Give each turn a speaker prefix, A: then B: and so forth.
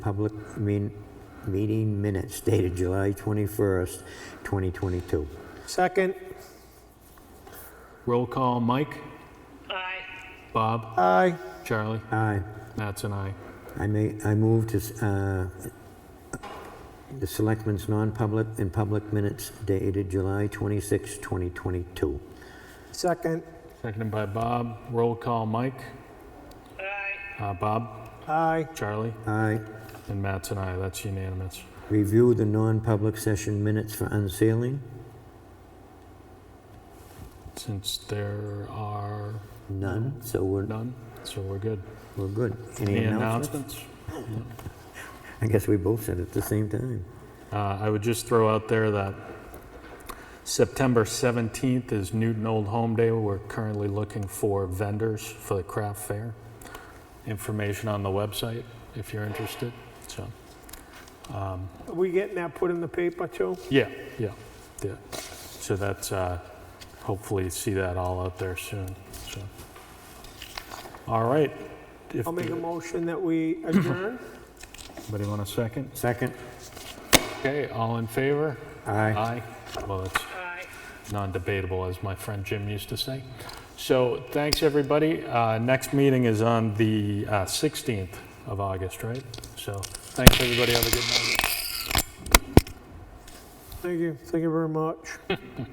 A: public mean- meeting minutes dated July 21st, 2022.
B: Second.
C: Roll call, Mike,
D: Aye.
C: Bob,
B: Aye.
C: Charlie,
A: Aye.
C: Matt's an aye.
A: I may, I move to, uh, the selectmen's non-public and public minutes dated July 26, 2022.
B: Second.
C: Seconded by Bob. Roll call, Mike,
D: Aye.
C: uh, Bob,
B: Aye.
C: Charlie,
A: Aye.
C: and Matt's an aye. That's unanimous.
A: Review the non-public session minutes for unsealing?
C: Since there are
A: None, so we're,
C: none, so we're good.
A: we're good.
C: Any
A: Any announcements?
C: announcements?
A: I guess we both said it at the same time.
C: Uh, I would just throw out there that September 17th is Newton Old Home Day. We're currently looking for vendors for the craft fair. Information on the website if you're interested. So, um,
B: Are we getting that put in the paper too?
C: yeah, yeah, yeah. So that's uh, hopefully see that all out there soon. So, all right. If
B: I'll make a motion that we adjourn.
C: anybody want a second?
A: Second?
C: Okay, all in favor?
A: Aye.
C: Aye. Well, that's
D: Aye.
C: non-debatable, as my friend Jim used to say. So thanks, everybody. Uh, Next meeting is on the uh, 16th of August, right? So thanks, everybody. Have a good night.
B: Thank you. Thank you very much.